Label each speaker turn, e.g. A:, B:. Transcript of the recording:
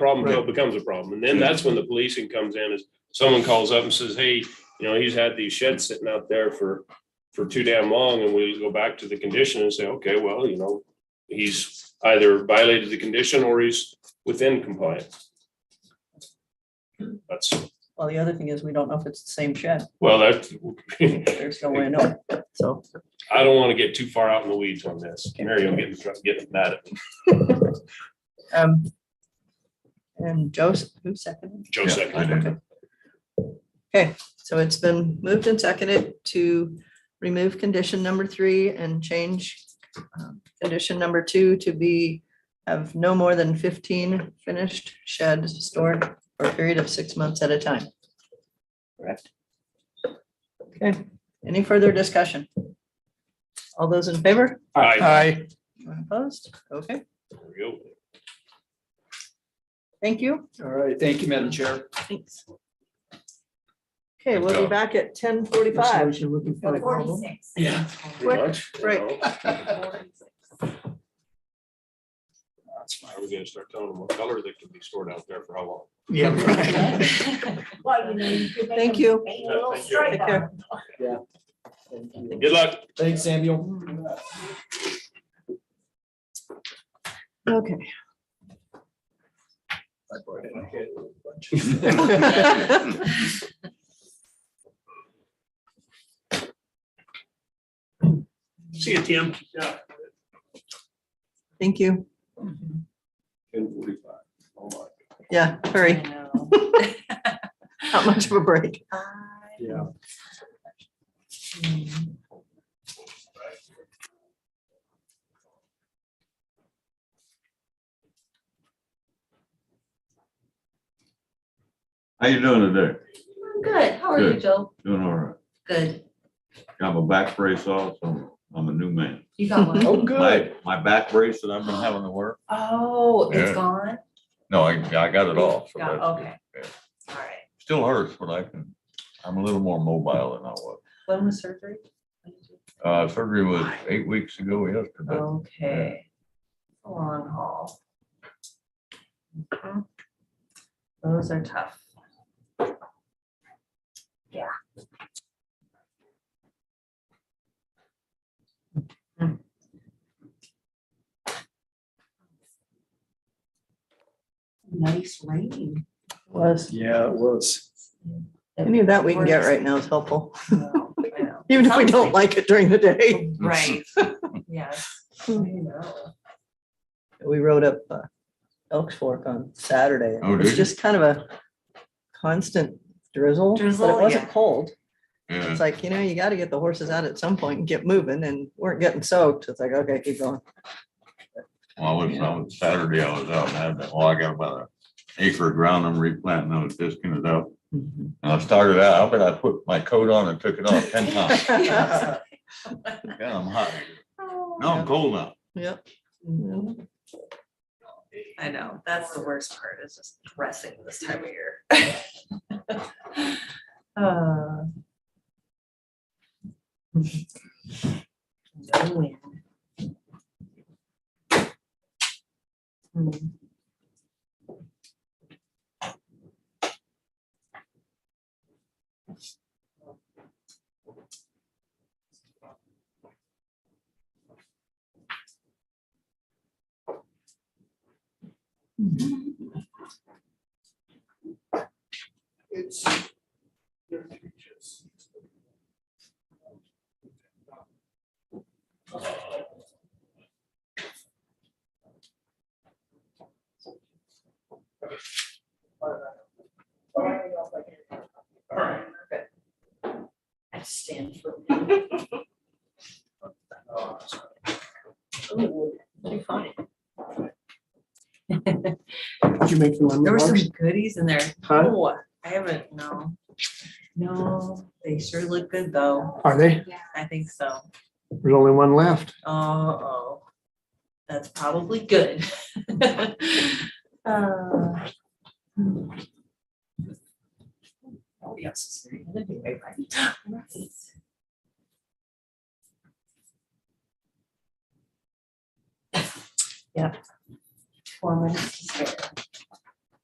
A: problem till it becomes a problem. And then that's when the policing comes in is someone calls up and says, hey, you know, he's had these sheds sitting out there for, for too damn long. And we go back to the condition and say, okay, well, you know, he's either violated the condition or he's within compliance. That's,
B: Well, the other thing is, we don't know if it's the same shed.
A: well, that's,
B: There's no way to know. So,
A: I don't want to get too far out in the weeds on this. Mary, I'm getting, getting mad at me.
B: um, and Joseph, who seconded?
A: Joe
C: Yeah, I
A: second.
C: did.
B: Okay. Okay, so it's been moved and seconded to remove condition number three and change um, condition number two to be have no more than fifteen finished sheds stored for a period of six months at a time. Correct. Okay, any further discussion? All those in favor?
D: uh,
A: Aye.
B: Anyone Opposed? Okay,
A: There we go.
B: thank you.
D: All right, thank you, Madam Chair.
B: Thanks. Okay, we'll be back at ten forty-five.
E: Forty-six.
D: Yeah.
A: Pretty much, you
B: break.
A: know. Are we gonna start telling them what color they can be stored out there for how long?
D: Yeah. right.
E: Well, you know, you could make
B: Thank
E: them
B: you.
E: paint a little
A: Thank you.
E: stripe
B: Take
E: on
B: care.
E: them.
A: Good luck.
D: Thanks, Samuel.
B: Okay.
A: See you, Tim. Yeah.
B: Thank you.
A: Ten forty-five. Oh, my.
B: Yeah, hurry, not much of a break.
D: Yeah.
C: How you doing today?
E: I'm Good, how are you,
C: Good.
E: Joe?
C: Doing all right.
E: Good,
C: Got my back brace off, so I'm a new man.
E: you got one.
D: Oh, good.
C: My, my back brace that I've been having to wear?
E: Oh,
C: Yeah.
E: it's gone?
C: No, I, I got it off. so
E: Got-
C: that's good.
E: okay. All right.
C: Still hurts, but I can, I'm a little more mobile than I was.
E: When was surgery?
C: Uh, surgery was eight weeks
E: Oh.
C: ago yesterday.
E: Okay. Long haul. Mhm. Those are tough. Yeah. Mm. Nice rain.
B: Was,
D: Yeah, it was.
B: any of that we can get right now is helpful,
E: I know, I know.
B: even if we don't like it during the day.
E: Right, yes. I know.
B: We rode up uh, Elks Fork on Saturday.
C: Oh,
B: It was
C: did you?
B: just kind of a constant drizzle, but it
E: Drizzle,
B: wasn't
E: yeah.
B: cold.
C: Yeah.
B: It's like, you know, you gotta get the horses out at some point and get moving and weren't getting soaked. It's like, okay, keep going.
C: Well, I was, I was Saturday, I was out and had that, well, I got about an acre of ground I'm replanting. I was disking it out.
B: Mm-hmm.
C: And I started out, I bet I put my coat on and took it off ten times.
B: Yep.
C: Yeah, I'm hot.
B: Oh.
C: No, I'm cold now.
E: Mhm. I know, that's the worst part, is just dressing this time of year. Uh, no win. Hmm.
A: It's.
E: I stand for. Too funny.
D: Did you make the
E: There were
D: lemon
E: some
D: bars?
E: goodies in there.
D: Huh?
E: No, I haven't, no. No, they sure look good though.
D: Are they?
E: I think so.
D: There's only one left.
E: Uh-oh. That's probably good. Uh, hmm. Nobody else is there. That'd be great, right? Right. Yep. Four minutes to spare.